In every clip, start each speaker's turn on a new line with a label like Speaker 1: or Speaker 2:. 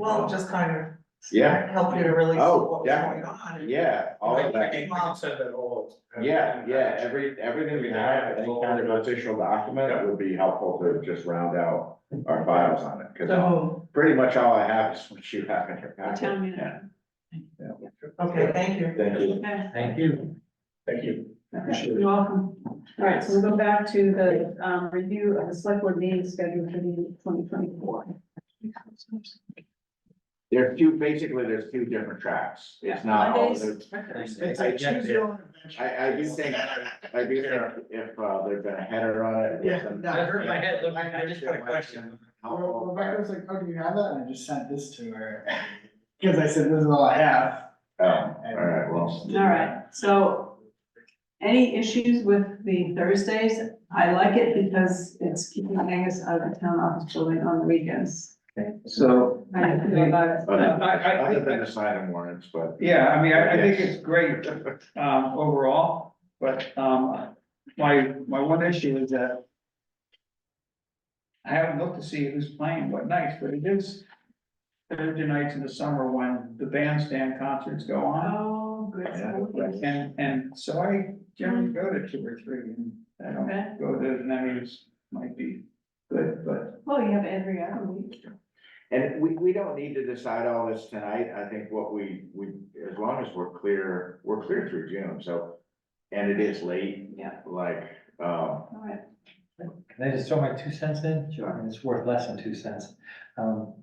Speaker 1: Well, just kind of
Speaker 2: Yeah,
Speaker 1: help you to really see
Speaker 2: Oh,
Speaker 1: what was
Speaker 2: definitely.
Speaker 1: going on.
Speaker 2: yeah, all
Speaker 3: I
Speaker 2: of
Speaker 3: I
Speaker 2: that,
Speaker 3: can, I can send that all.
Speaker 2: yeah, yeah, every, everything we have, any kind of official document would be helpful to just round out our files on it, cause
Speaker 1: So,
Speaker 2: pretty much all I have is what you have in your
Speaker 4: The
Speaker 2: packet.
Speaker 4: town
Speaker 2: Yeah.
Speaker 4: meeting.
Speaker 1: okay, thank you.
Speaker 2: Thank you.
Speaker 4: Okay,
Speaker 3: Thank you. Thank you.
Speaker 4: okay, you're welcome. All right, so we'll go back to the, um, review of the select board meeting schedule for the twenty twenty-four.
Speaker 2: There are two, basically, there's two different tracks. It's not all, the- I
Speaker 3: Tuesday.
Speaker 2: I, I do think, I do think if, uh, there's been a header on it.
Speaker 1: Yeah,
Speaker 3: I hurt my head, look, I I just got a question.
Speaker 5: Well,
Speaker 2: Helpful.
Speaker 5: Rebecca was like, oh, do you have that? And I just sent this to her, cause I said, this is all I have.
Speaker 2: Oh, all right, well.
Speaker 4: All right, so any issues with the Thursdays? I like it because it's keeping Angus out of the town office building on the weekends.
Speaker 6: So,
Speaker 4: I don't feel about it.
Speaker 2: Other
Speaker 6: I, I, I
Speaker 2: other than
Speaker 6: think,
Speaker 2: the sign warrants, but.
Speaker 6: yeah, I mean, I, I think it's great, um, overall, but, um, my, my one issue is that I haven't looked to see who's playing what nights, but it is Thursday nights in the summer when the bandstand concerts go on.
Speaker 4: Oh, good. Okay.
Speaker 6: And, and so I generally go to two or three, and I don't
Speaker 4: Okay.
Speaker 6: go to as many as might be good, but
Speaker 4: Well, you have every other week.
Speaker 2: And we, we don't need to decide all this tonight, I think what we, we, as long as we're clear, we're clear through June, so. And it is late,
Speaker 4: Yeah,
Speaker 2: like, um,
Speaker 4: all right.
Speaker 7: Can I just throw my two cents in?
Speaker 2: Sure.
Speaker 7: I mean, It's worth less than two cents. Um,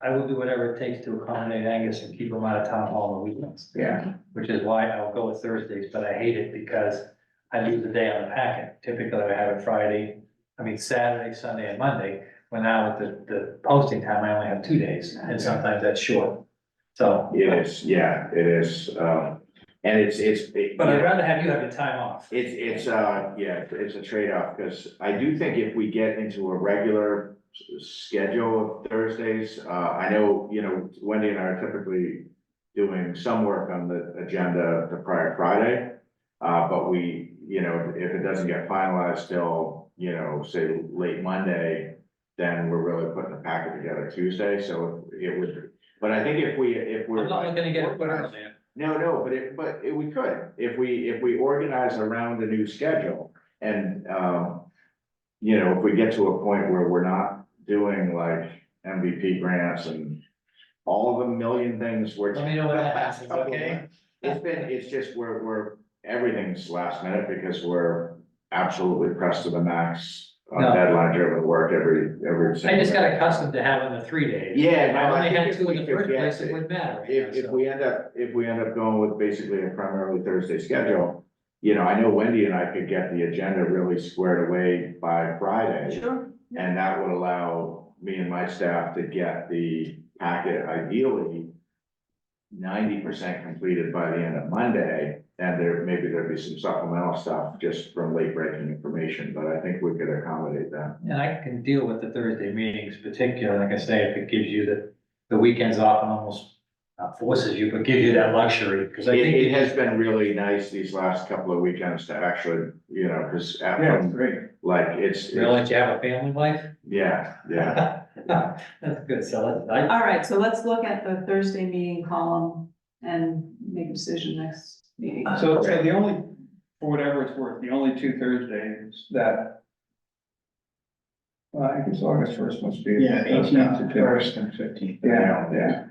Speaker 7: I will do whatever it takes to accommodate Angus and keep him out of town hall on the weekends.
Speaker 2: Yeah.
Speaker 7: Which is why I'll go with Thursdays, but I hate it because I lose a day on the packet. Typically, I have it Friday, I mean, Saturday, Sunday, and Monday. When now with the, the posting time, I only have two days, and sometimes that's short. So,
Speaker 2: it is, yeah, it is, um, and it's, it's. it-
Speaker 7: but I'd rather have you have your time off.
Speaker 2: It's, it's, uh, yeah, it's a trade-off, because I do think if we get into a regular s- schedule of Thursdays, uh, I know, you know, Wendy and I are typically doing some work on the agenda the prior Friday, uh, but we, you know, if it doesn't get finalized till, you know, say late Monday, then we're really putting the packet together Tuesday, so it would, but I think if we, if we're.
Speaker 7: I'm not looking to get it put on there.
Speaker 2: No, no, but it, but it- we could, if we, if we organize around the new schedule and, um. You know, if we get to a point where we're not doing like MVP grants and all the million things we're.
Speaker 7: Let me know when that happens, okay?
Speaker 2: It's been, it's just we're, we're, everything's last minute because we're absolutely pressed to the max. On
Speaker 7: No.
Speaker 2: deadline driven work every, every.
Speaker 7: I
Speaker 2: single
Speaker 7: just got
Speaker 2: day.
Speaker 7: accustomed to having the three days.
Speaker 2: Yeah,
Speaker 7: I
Speaker 2: no, I
Speaker 7: only
Speaker 2: think
Speaker 7: had
Speaker 2: if
Speaker 7: two
Speaker 2: we
Speaker 7: in the
Speaker 2: could
Speaker 7: first
Speaker 2: get
Speaker 7: place,
Speaker 2: it-
Speaker 7: it wouldn't matter. right now,
Speaker 2: If, if
Speaker 7: so.
Speaker 2: we end up, if we end up going with basically a primarily Thursday schedule, you know, I know Wendy and I could get the agenda really squared away by Friday.
Speaker 4: Sure.
Speaker 2: And that would allow me and my staff to get the packet ideally ninety percent completed by the end of Monday, and there, maybe there'd be some supplemental stuff just from late breaking information, but I think we could accommodate that.
Speaker 7: And I can deal with the Thursday meetings particularly, like I say, if it gives you the, the weekends off and almost not forces you, but gives you that luxury, because I
Speaker 2: It,
Speaker 7: think.
Speaker 2: it has been really nice these last couple of weekends to actually, you know, because
Speaker 5: Yeah, it's great.
Speaker 2: like, it's.
Speaker 7: They'll let you have a family life?
Speaker 2: Yeah, yeah,
Speaker 7: That's good, so I,
Speaker 4: All right, so let's look at the Thursday meeting column and make a decision next meeting.
Speaker 6: so, so the only, for whatever it's worth, the only two Thursdays that well, I guess August first must be.
Speaker 5: Yeah,
Speaker 6: that's not
Speaker 5: eighteenth
Speaker 6: too bad.
Speaker 5: first and fifteenth.
Speaker 6: Yeah, yeah.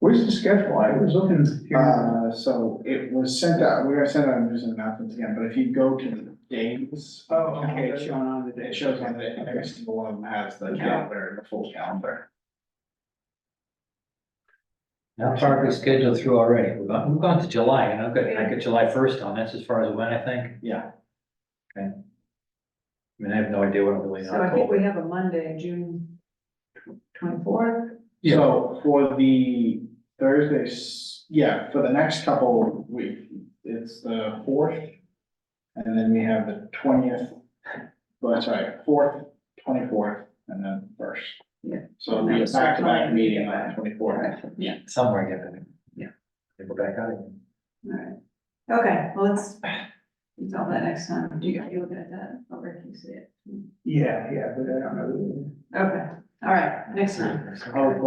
Speaker 6: Where's the schedule? I was looking here.
Speaker 5: Uh, so it was sent out, we are sent out, I'm just announcements again, but if you go to the dates.
Speaker 6: Oh, okay, it's showing on the day.
Speaker 5: It shows on the, every single one of them has the calendar, the full calendar.
Speaker 7: now partly scheduled through already, we've gone, we've gone to July, and I've got, I got July first on, that's as far as when, I think.
Speaker 5: Yeah.
Speaker 7: Okay. I mean, I have no idea what I'm doing. in
Speaker 4: So I think
Speaker 7: October.
Speaker 4: we have a Monday, June twenty-fourth.
Speaker 7: Yeah.
Speaker 5: So for the Thursdays, yeah, for the next couple week, it's the fourth. And then we have the twentieth, well, sorry, fourth, twenty-fourth, and then first.
Speaker 4: Yeah.
Speaker 5: So it'll be a back-to-back meeting on the twenty-fourth.
Speaker 4: Yeah.
Speaker 7: Somewhere, I get that. Yeah. They go back out again.
Speaker 4: All right. Okay, well, let's, we all that next time. Do you, are you looking at that? Over, can you see it?
Speaker 6: Yeah, yeah, but I don't know.
Speaker 4: Okay, all right, next time.
Speaker 5: Oh,